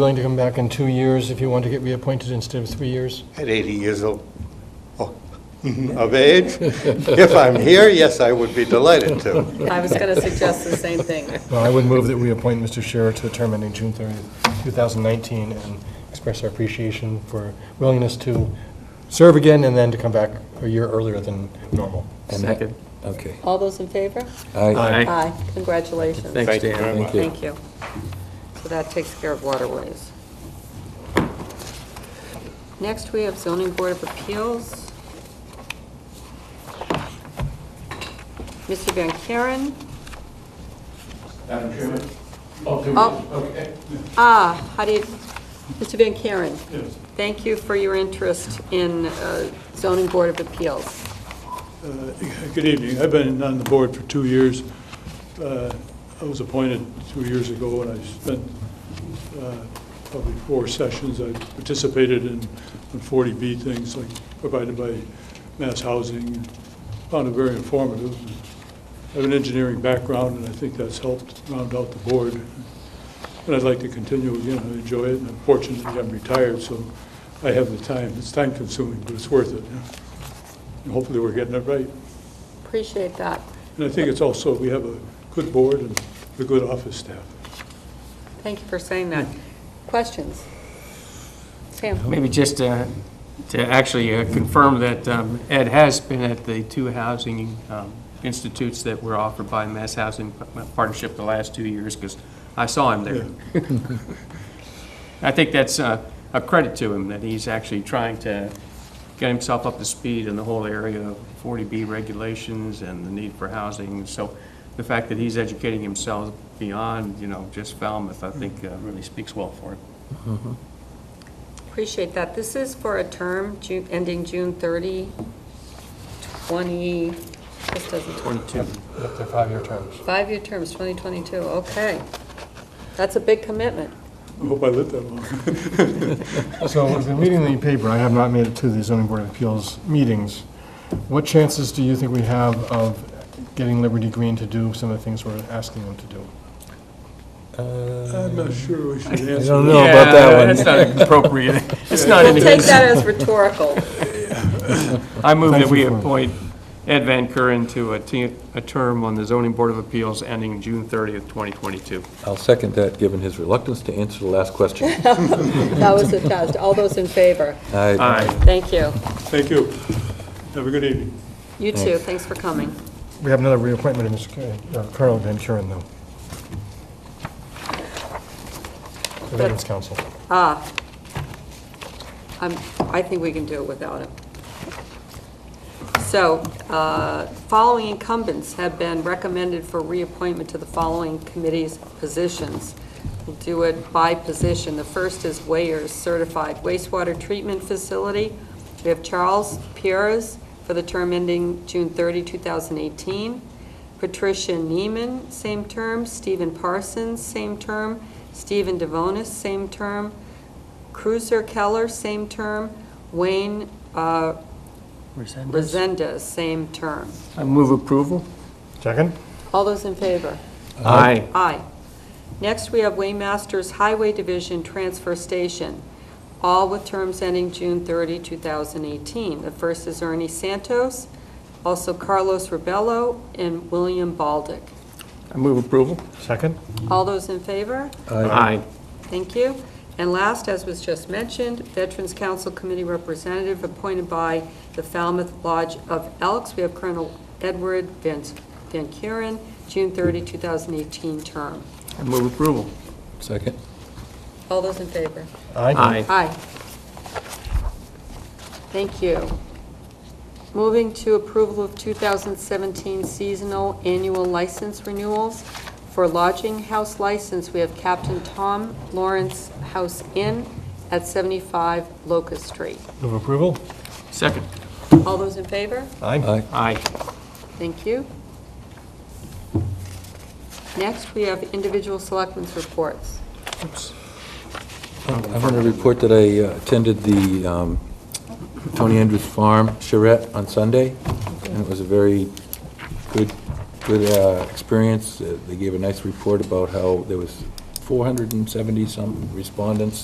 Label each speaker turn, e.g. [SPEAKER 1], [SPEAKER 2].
[SPEAKER 1] willing to come back in two years if you want to get reappointed instead of three years?
[SPEAKER 2] at 80 years old, oh, of age. If I'm here, yes, I would be delighted to.
[SPEAKER 3] I was going to suggest the same thing.
[SPEAKER 1] Well, I would move that we appoint Mr. Scherer to the term ending June 30th, 2019, and express our appreciation for willingness to serve again and then to come back a year earlier than normal.
[SPEAKER 4] And that-
[SPEAKER 5] Second.
[SPEAKER 4] Okay.
[SPEAKER 3] All those in favor?
[SPEAKER 4] Aye.
[SPEAKER 3] Aye. Congratulations.
[SPEAKER 5] Thanks,
[SPEAKER 2] Thank you
[SPEAKER 5] Dan.
[SPEAKER 2] very much.
[SPEAKER 4] Thank you.
[SPEAKER 3] Thank you. So that takes care of waterways. Next, we have zoning board of appeals. Mr. Van Kuren.
[SPEAKER 6] Madam Chairman? Oh, do we-
[SPEAKER 3] Oh.
[SPEAKER 6] okay.
[SPEAKER 3] Ah, how do you, Mr. Van Kuren,
[SPEAKER 6] Yes.
[SPEAKER 3] thank you for your interest in uh, zoning board of appeals.
[SPEAKER 6] Uh, Good evening. I've been on the board for two years. Uh, I was appointed two years ago, and I spent uh, probably four sessions. I participated in in 40B things like provided by Mass Housing. Found it very informative. I have an engineering background, and I think that's helped round out the board. And I'd like to continue again. I enjoy it, and I'm fortunate that I'm retired, so I have the time. It's time-consuming, but it's worth it. And Hopefully, we're getting it right.
[SPEAKER 3] Appreciate that.
[SPEAKER 6] And I think it's also, we have a good board and a good office staff.
[SPEAKER 3] Thank you for saying that. Questions? Sam?
[SPEAKER 5] Maybe just uh, to actually uh, confirm that um, Ed has been at the two housing um, institutes that were offered by Mass Housing Partnership the last two years, because I saw him there. I think that's uh, a credit to him, that he's actually trying to get himself up to speed in the whole area of 40B regulations and the need for housing. So the fact that he's educating himself beyond, you know, just Falmouth, I think uh, really speaks well for him.
[SPEAKER 3] Appreciate that. This is for a term Ju- ending June 30, 20, this doesn't,
[SPEAKER 5] 22.
[SPEAKER 1] Up to five-year terms.
[SPEAKER 3] five-year terms, 2022, okay. That's a big commitment.
[SPEAKER 6] I hope I lived that long.
[SPEAKER 1] So I've been reading the paper, I have not made it to the zoning board of appeals meetings. What chances do you think we have of getting Liberty Green to do some of the things we're asking them to do?
[SPEAKER 6] I'm not sure we should answer.
[SPEAKER 4] don't
[SPEAKER 6] that.
[SPEAKER 4] know about that one.
[SPEAKER 5] Yeah, that's not appropriate. It's not
[SPEAKER 3] We'll
[SPEAKER 5] in
[SPEAKER 3] take
[SPEAKER 5] his.
[SPEAKER 3] that as rhetorical.
[SPEAKER 5] I move
[SPEAKER 1] Thank
[SPEAKER 5] that we
[SPEAKER 1] you for-
[SPEAKER 5] appoint Ed Van Kuren to a te- a term on the zoning board of appeals ending June 30th, 2022.
[SPEAKER 4] I'll second that, given his reluctance to answer the last question.
[SPEAKER 3] That was a test. All those in favor?
[SPEAKER 4] Aye.
[SPEAKER 5] Aye.
[SPEAKER 3] Thank you.
[SPEAKER 6] Thank you. Have a good evening.
[SPEAKER 3] You too, thanks for coming.
[SPEAKER 1] We have another reappointment of Mr. Cu- uh, Colonel Van Kuren, though. The Veterans Council.
[SPEAKER 3] Ah, I'm, Um, I think we can do it without him. So, uh, following incumbents have been recommended for reappointment to the following committees' positions. We'll do it by position. The first is Wayers Certified Wastewater Treatment Facility. We have Charles Pierres for the term ending June 30, 2018. Patricia Neiman, same term. Stephen Parsons, same term. Stephen Devonis, same term. Cruiser Keller, same term. Wayne uh, Resendez, same term.
[SPEAKER 5] I move approval.
[SPEAKER 1] Second?
[SPEAKER 3] All those in favor?
[SPEAKER 5] Aye.
[SPEAKER 3] Aye. Next, we have Waymasters Highway Division Transfer Station, all with terms ending June 30, 2018. The first is Ernie Santos, also Carlos Rebello, and William Baldick.
[SPEAKER 5] I move approval.
[SPEAKER 1] Second?
[SPEAKER 3] All those in favor?
[SPEAKER 5] Aye.
[SPEAKER 3] Thank you. And last, as was just mentioned, Veterans Council Committee Representative appointed by the Falmouth Lodge of Elks. We have Colonel Edward Van Van Kuren, June 30, 2018 term.
[SPEAKER 5] I move approval.
[SPEAKER 4] Second.
[SPEAKER 3] All those in favor?
[SPEAKER 5] Aye.
[SPEAKER 3] Aye. Thank you. Moving to approval of 2017 seasonal annual license renewals. For lodging house license, we have Captain Tom Lawrence House Inn at 75 Locust Street.
[SPEAKER 1] Move approval?
[SPEAKER 5] Second.
[SPEAKER 3] All those in favor?
[SPEAKER 4] Aye.
[SPEAKER 5] Aye.
[SPEAKER 3] Thank you. Next, we have individual selectmen's reports.
[SPEAKER 4] I want to report that I uh, attended the um, Tony Andrews Farm charrette on Sunday, and it was a very good, good uh, experience. Uh, They gave a nice report about how there was 470-some respondents